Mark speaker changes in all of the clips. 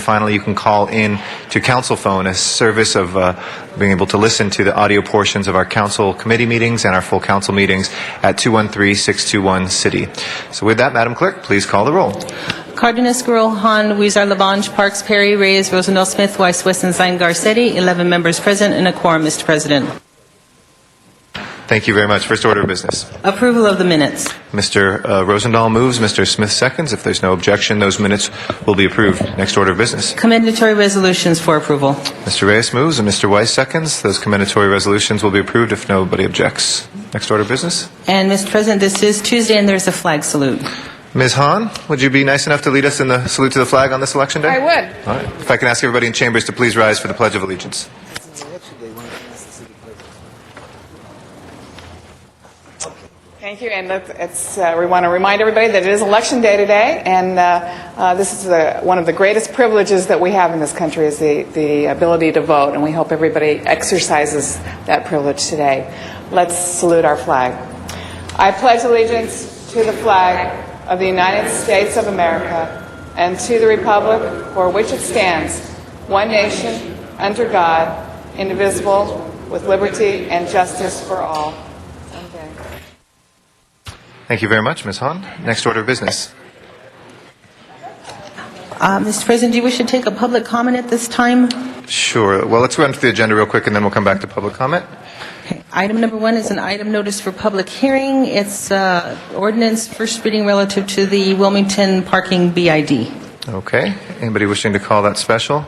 Speaker 1: finally, you can call in to council phone, a service of uh, being able to listen to the audio portions of our council committee meetings and our full council meetings at 213-621-CITY. So with that, Madam Clerk, please call the roll.
Speaker 2: Cardenas, Gruel, Han, Weezer, Labange, Parks, Perry, Reyes, Rosendahl, Smith, Weiss, Wesson, Zine, Garcetti, 11 members present and a quorum, Mr. President.
Speaker 1: Thank you very much. First order of business.
Speaker 2: Approval of the minutes.
Speaker 1: Mr. uh, Rosendahl moves, Mr. Smith seconds. If there's no objection, those minutes will be approved. Next order of business.
Speaker 2: Commendatory resolutions for approval.
Speaker 1: Mr. Reyes moves and Mr. Weiss seconds. Those commendatory resolutions will be approved if nobody objects. Next order of business.
Speaker 2: And, Mr. President, this is Tuesday, and there's a flag salute.
Speaker 1: Ms. Hahn, would you be nice enough to lead us in the salute to the flag on this election day?
Speaker 3: I would.
Speaker 1: All right. If I can ask everybody in chambers to please rise for the Pledge of Allegiance.
Speaker 3: Thank you, and that- it's, uh, we want to remind everybody that it is Election Day today, and uh, uh, this is the- one of the greatest privileges that we have in this country is the the ability to vote, and we hope everybody exercises that privilege today. Let's salute our flag. I pledge allegiance to the flag of the United States of America and to the republic for which it stands, one nation, under God, indivisible, with liberty and justice for all.
Speaker 1: Thank you very much, Ms. Hahn. Next order of business.
Speaker 2: Uh, Mr. President, do you wish to take a public comment at this time?
Speaker 1: Sure. Well, let's run through the agenda real quick, and then we'll come back to public comment.
Speaker 2: Okay. Item number one is an item notice for public hearing. It's uh, ordinance first reading relative to the Wilmington parking BID.
Speaker 1: Okay. Anybody wishing to call that special?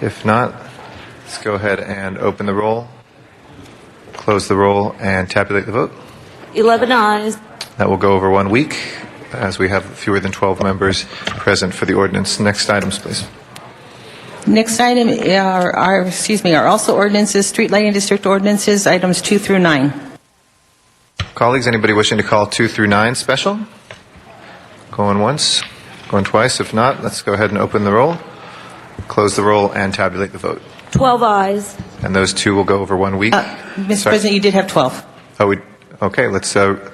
Speaker 1: If not, let's go ahead and open the roll, close the roll, and tabulate the vote.
Speaker 4: 11 eyes.
Speaker 1: That will go over one week, as we have fewer than 12 members present for the ordinance. Next items, please.
Speaker 2: Next item are, are- excuse me, are also ordinances, street lighting district ordinances, items two through nine.
Speaker 1: Colleagues, anybody wishing to call two through nine special? Going once, going twice. If not, let's go ahead and open the roll, close the roll, and tabulate the vote.
Speaker 4: 12 eyes.
Speaker 1: And those two will go over one week. Sorry.
Speaker 2: Mr. Uh, President, you did have 12.
Speaker 1: Oh, we, okay, let's, uh,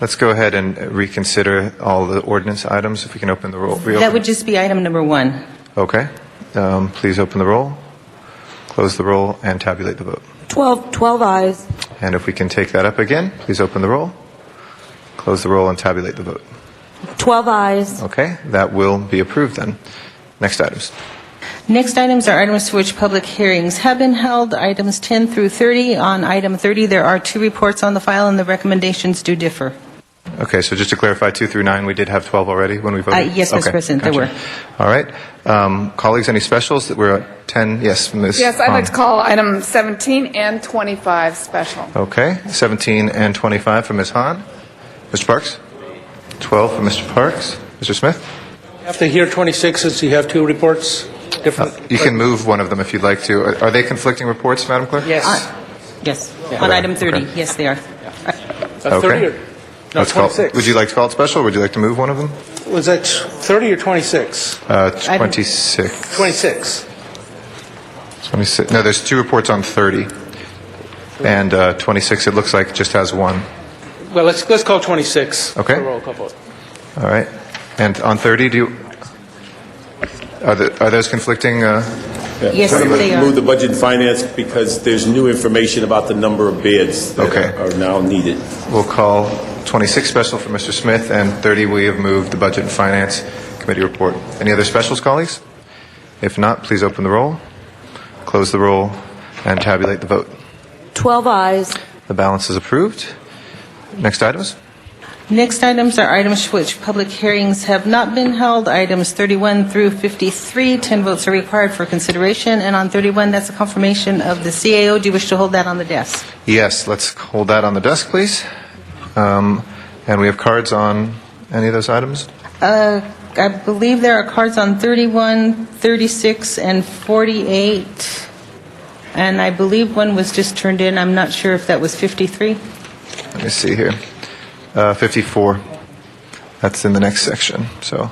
Speaker 1: let's go ahead and reconsider all the ordinance items, if we can open the roll. reopen-
Speaker 2: That would just be item number one.
Speaker 1: Okay, um, please open the roll, close the roll, and tabulate the vote.
Speaker 4: 12, 12 eyes.
Speaker 1: And if we can take that up again, please open the roll, close the roll, and tabulate the vote.
Speaker 4: 12 eyes.
Speaker 1: Okay, that will be approved then. Next items.
Speaker 2: Next items are items for which public hearings have been held, items 10 through 30. On item 30, there are two reports on the file, and the recommendations do differ.
Speaker 1: Okay, so just to clarify, two through nine, we did have 12 already when we voted?
Speaker 2: Uh, yes, Mr.
Speaker 1: Okay,
Speaker 2: President, there
Speaker 1: gotcha. All right. Um, Colleagues, any specials that were at 10? Yes, Ms.
Speaker 3: Yes, I'd
Speaker 1: Hahn.
Speaker 3: like to call item 17 and 25 special.
Speaker 1: Okay, 17 and 25 for Ms. Hahn. Mr. Parks? 12 for Mr. Parks. Mr. Smith?
Speaker 5: After here 26, since you have two reports, different.
Speaker 1: Uh, You can move one of them if you'd like to. Are- Are they conflicting reports, Madam Clerk?
Speaker 5: Yes.
Speaker 2: Uh, Yes, on item 30.
Speaker 1: Okay.
Speaker 2: Yes, they are.
Speaker 5: Uh, 30 or-
Speaker 1: Okay.
Speaker 5: No,
Speaker 1: Let's call-
Speaker 5: 26.
Speaker 1: Would you like to call it special, or would you like to move one of them?
Speaker 5: Was that 30 or 26?
Speaker 1: Uh, 26.
Speaker 5: 26.
Speaker 1: 26, no, there's two reports on 30, and uh, 26, it looks like, just has one.
Speaker 5: Well, let's, let's call 26.
Speaker 1: Okay.
Speaker 5: for roll call vote.
Speaker 1: All right. And on 30, do you, are the- are those conflicting? uh,
Speaker 2: Yes,
Speaker 6: So I'm gonna
Speaker 2: they are.
Speaker 6: Move the budget and finance because there's new information about the number of bids
Speaker 1: Okay.
Speaker 6: that are now needed.
Speaker 1: We'll call 26 special for Mr. Smith, and 30, we have moved the Budget and Finance Committee report. Any other specials, colleagues? If not, please open the roll, close the roll, and tabulate the vote.
Speaker 4: 12 eyes.
Speaker 1: The balance is approved. Next items?
Speaker 2: Next items are items for which public hearings have not been held, items 31 through 53. 10 votes are required for consideration, and on 31, that's a confirmation of the CAO. Do you wish to hold that on the desk?
Speaker 1: Yes, let's hold that on the desk, please. Um, And we have cards on any of those items?
Speaker 2: Uh, I believe there are cards on 31, 36, and 48, and I believe one was just turned in. I'm not sure if that was 53.
Speaker 1: Let me see here. Uh, 54. That's in the next section, so.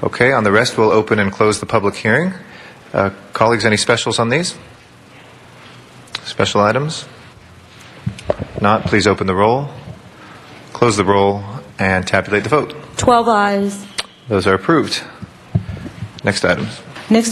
Speaker 1: Okay, on the rest, we'll open and close the public hearing. Uh, Colleagues, any specials on these? Special items? Not, please open the roll, close the roll, and tabulate the vote.
Speaker 4: 12 eyes.
Speaker 1: Those are approved. Next items.